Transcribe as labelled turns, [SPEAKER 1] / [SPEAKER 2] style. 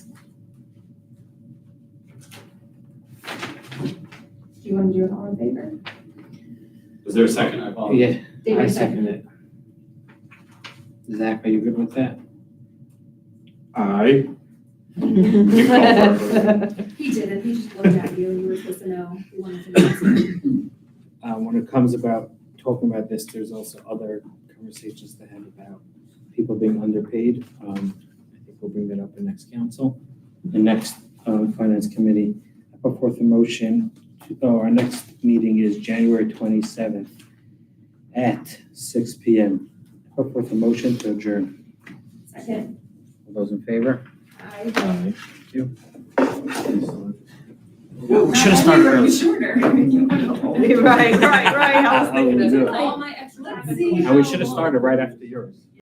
[SPEAKER 1] Do you want to do it all in favor?
[SPEAKER 2] Is there a second? I apologize.
[SPEAKER 3] Yeah, I
[SPEAKER 1] David, second.
[SPEAKER 3] second it. Zach, are you good with that?
[SPEAKER 4] I,
[SPEAKER 1] He did it, he just looked at you, you were supposed to know, you wanted to know.
[SPEAKER 3] Uh, when it comes about talking about this, there's also other conversations to have about people being underpaid. Um, I think we'll bring that up in next council, the next, um, finance committee. I put forth a motion, to- oh, our next meeting is January twenty-seventh at six P M. I Put forth a motion to adjourn.
[SPEAKER 1] Second,
[SPEAKER 3] All those in favor?
[SPEAKER 4] I.
[SPEAKER 1] I.
[SPEAKER 3] you.
[SPEAKER 1] I thought you were shorter.
[SPEAKER 5] Right, right, right, I was thinking
[SPEAKER 3] How we
[SPEAKER 5] that.
[SPEAKER 3] do it.
[SPEAKER 1] All my extra.
[SPEAKER 5] Let's see
[SPEAKER 3] And we should have started right after yours.